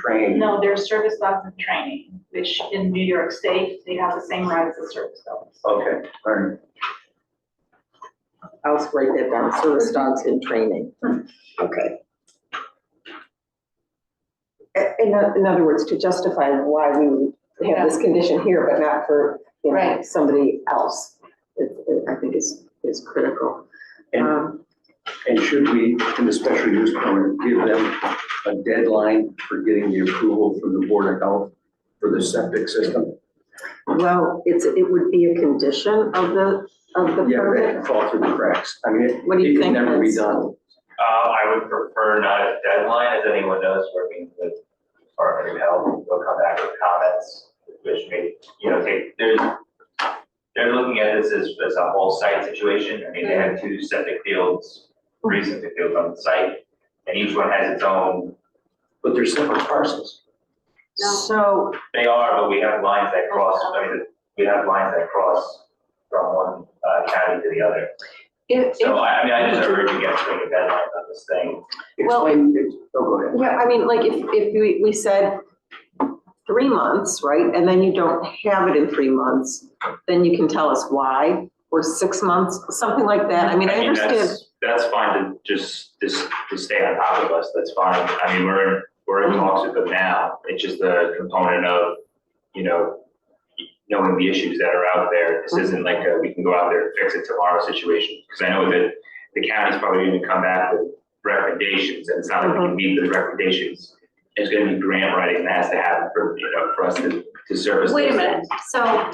trained. No, they're service dogs and training, which in New York State, they have the same rights as service dogs. Okay, all right. I'll just write that down, service dogs in training. Okay. I- In, o- in other words, to justify why we would have this condition here, but not for, you know, Right. somebody else. It, it, I think is, is critical. And, Um, and should we, in the special use permit, give them a deadline for getting the approval from the Board of Health for the septic system? well, it's, it would be a condition of the, of the Yeah, that permit. can fall through the cracks. I mean, it, What do you it can think, never be Vince? done. Uh, I would prefer not a deadline, as anyone knows, working with Department of Health, they'll come back with comments, which may, you know, take, there's, they're looking at this as, as a whole site situation, I mean, they have two septic fields, three septic fields on the site, and each one has its own, But they're separate parcels. So, they are, but we have lines that cross, I mean, we have lines that cross from one uh, county to the other. if, So I, I mean, I just urge you guys to make a deadline on this thing, Well- Explain, it- oh, go ahead. Yeah, I mean, like, if, if we, we said three months, right, and then you don't have it in three months, then you can tell us why, or six months, something like that, I mean, I understand. that's- That's fine to just, just, to stay on top of us, that's fine. I mean, we're, in we're in talks with them now. It's just a component of, you know, knowing the issues that are out there. Mm-hmm. This isn't like a, we can go out there and fix it tomorrow situation. Because I know that the county's probably gonna come back with recommendations and it's not like we Mm-hmm. can meet those recommendations. It's gonna be grant writing that has to happen for, you know, for us to, to service. Wait a those minute, things. so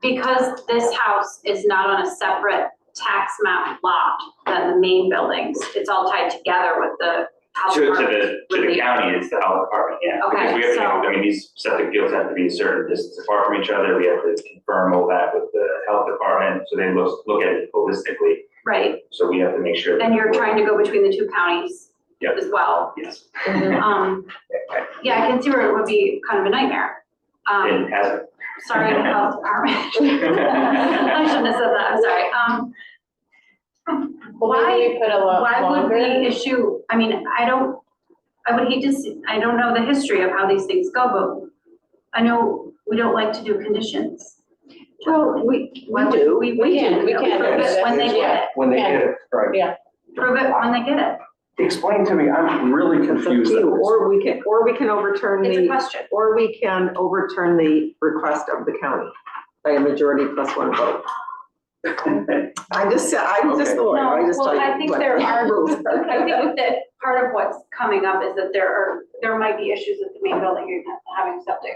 because this house is not on a separate tax map lot than the main buildings, it's all tied together with the house To, to market. the, to the county, it's the health department, yeah. Because Okay, we have to, so- I mean, these septic fields have to be a certain distance apart from each other, we have to confirm all that with the health department, so they look, look at it holistically, Right, so we have to make sure. that and you're we're- trying to go between the two counties Yep. as well. Yes, Um, yeah, I can see where it would be kind of a nightmare. Um, it has. sorry, to the health department. I shouldn't have said that, I'm sorry. Um, Why- Maybe we put a lot Why would we longer? issue, I mean, I don't, I would hate to, see- I don't know the history of how these things go, but I know we don't like to do conditions. Well, we, Why would We, we can, we can. Prove it when they get it, When they get it, right. prove it when they get it. Explain to me, I'm really confused. on this. Or we can, or we can overturn It's a the, question. or we can overturn the request of the county by a majority plus one vote. I just said, I'm just the lawyer, I No, just tell well, you. I think what there are- rules I think that part of what's coming up is that there are, there might be issues with the main building, you're not having septic.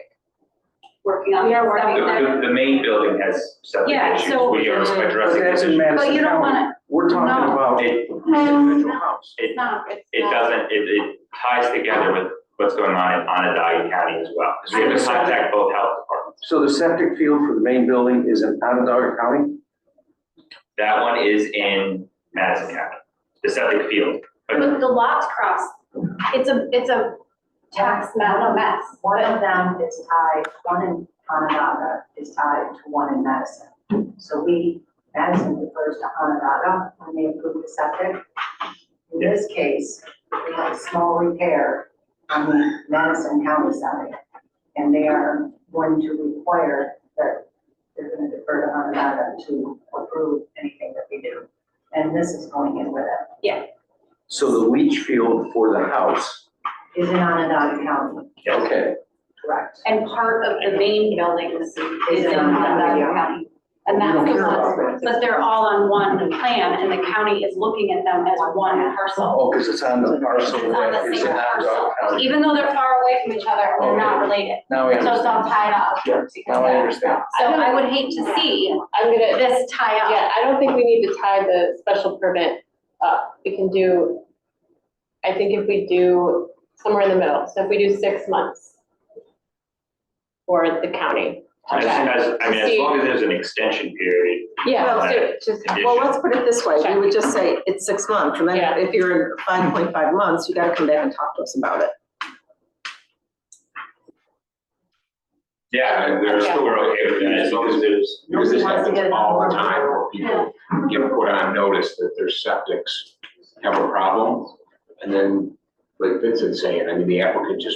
Working on. We are working septic. The, the, the main building has septic Yeah, issues, so- we are But addressing this that's in issue. Madison But you don't County. wanna, We're talking No. about an It, individual house. it, no, it's it not. doesn't, it, it ties together with what's going on in Onondaga County as well, because we have to contact both health departments. So the septic field for the main building is in Onondaga County? That one is in Madison County, the septic field. But But the lots cross, it's a, it's a tax map mess. One of them is tied, one in Onondaga is tied to one in Madison. So we, Madison refers to Onondaga when they approve the septic. In this case, we have a small repair on the Madison County side. And they are going to require that they're going to defer to Onondaga to approve anything that we do. And this is going in with it, So the leach field for the house? is in Onondaga County, Okay. correct? And part of the main buildings is in Onondaga County. And We don't that's the care one, about that. but they're all on one plan and the county is looking at them as one parcel. Oh, because it's on the parcel It's on that the is in same Onondaga parcel, County. even though they're far away from each other, they're not related. Now I So it's all understand. tied up. Sure, now I understand. So I would hate to see I'm gonna, this tie up. yeah, I don't think we need to tie the special permit up. We can do, I think if we do somewhere in the middle, so if we do six months for the county. As, Okay. as, I mean, as long as there's an extension period, Yeah, so just, Well, let's put it this way, we would just say it's six months, and then Yeah. if you're in five point five months, you gotta come back and talk to us about it. yeah, we're still, we're okay with that, as long as there's. Because this happens all the time where Yeah. people get put on notice that their septics have a problem. And then, like Vincent's saying, I mean, the applicant just